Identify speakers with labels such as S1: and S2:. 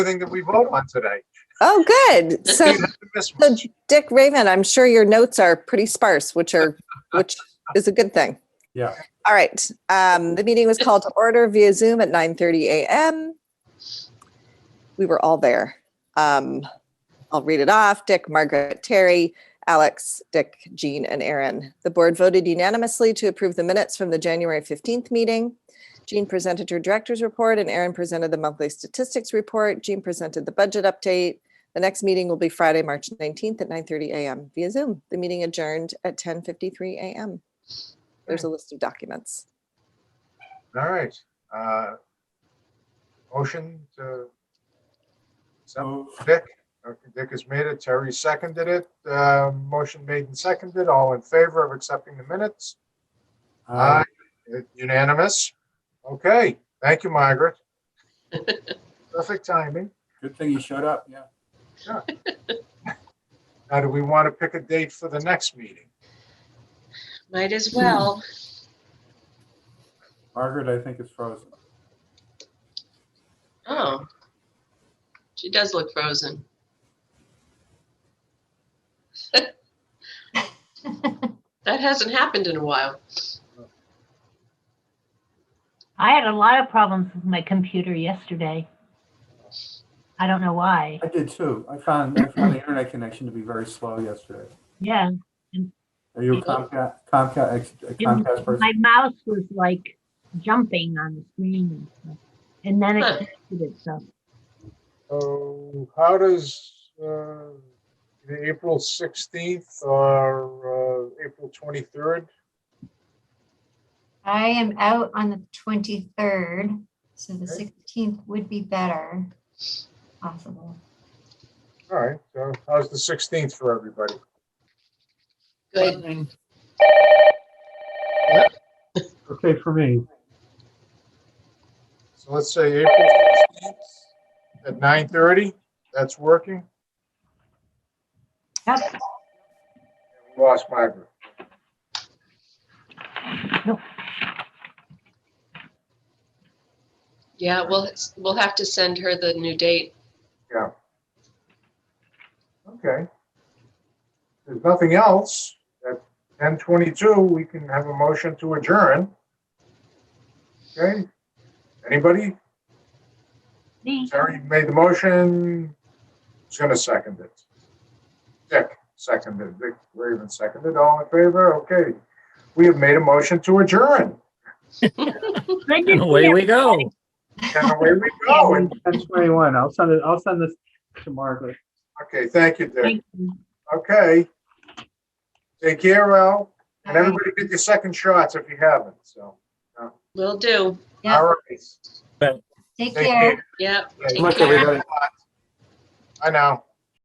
S1: everything that we vote on today.
S2: Oh, good. So,
S1: You haven't missed
S2: so
S1: one.
S2: Dick Raven, I'm sure your notes are pretty sparse, which are, which is a good thing.
S1: Yeah.
S2: All right. Um, the meeting was called to order via Zoom at 9:30 a.m. We were all there. Um, I'll read it off. Dick, Margaret, Terry, Alex, Dick, Jean, and Aaron. The board voted unanimously to approve the minutes from the January 15th meeting. Jean presented her director's report and Aaron presented the monthly statistics report. Jean presented the budget update. The next meeting will be Friday, March 19th at 9:30 a.m. via Zoom. The meeting adjourned at 10:53 a.m. There's a list of documents.
S1: All right. Uh, Motion to. Some,
S3: Move.
S1: Dick, okay, Dick has made it. Terry seconded it. Uh, motion made and seconded. All in favor of accepting the minutes?
S3: Aye.
S1: Aye. Unanimous? Okay, thank you, Margaret. Perfect timing.
S3: Good thing you showed up, yeah.
S1: Now, do we want to pick a date for the next meeting?
S4: Might as well.
S3: Margaret, I think is frozen.
S4: Oh. She does look frozen. That hasn't happened in a while.
S5: I had a lot of problems with my computer yesterday. I don't know why.
S3: I did too. I found, I found the internet connection to be very slow yesterday.
S5: Yeah,
S3: Are you a Comcast, Comcast, ex- a
S5: it-
S3: Comcast person?
S5: my mouse was like jumping on the screen and stuff. And then
S4: Huh.
S5: it connected itself.
S1: So how does uh, the April 16th or uh, April 23rd?
S6: I am out on the twenty-third, so the
S1: Okay.
S6: sixteenth would be better. Possible.
S1: All right, so how's the 16th for everybody?
S4: Good.
S3: Okay, for me.
S1: So let's say April 16th at 9:30, that's working?
S5: Yep.
S1: We Lost Margaret.
S4: Yeah, we'll, we'll have to send her the new date.
S1: Okay. There's nothing else. At 10:22, we can have a motion to adjourn. Okay? Anybody?
S5: Me,
S1: Terry made the motion. Who's gonna second it? Dick seconded, Dick Raven seconded, all in favor? Okay. We have made a motion to adjourn.
S5: good to
S7: And
S5: see
S7: away we
S5: everybody.
S7: go.
S1: And away we go.
S3: Oh,
S1: And-
S3: ten twenty-one. I'll send it, I'll send this to Margaret.
S1: Okay, thank you, Dick.
S5: Thank you.
S1: Okay. Take care, Al, and
S6: All right.
S1: everybody get your second shots if you haven't, so.
S4: Will do.
S6: Yeah.
S1: All right.
S6: Take
S1: Take
S6: care.
S1: care.
S4: Yep.
S1: Thank
S3: Look, everybody.
S1: I know.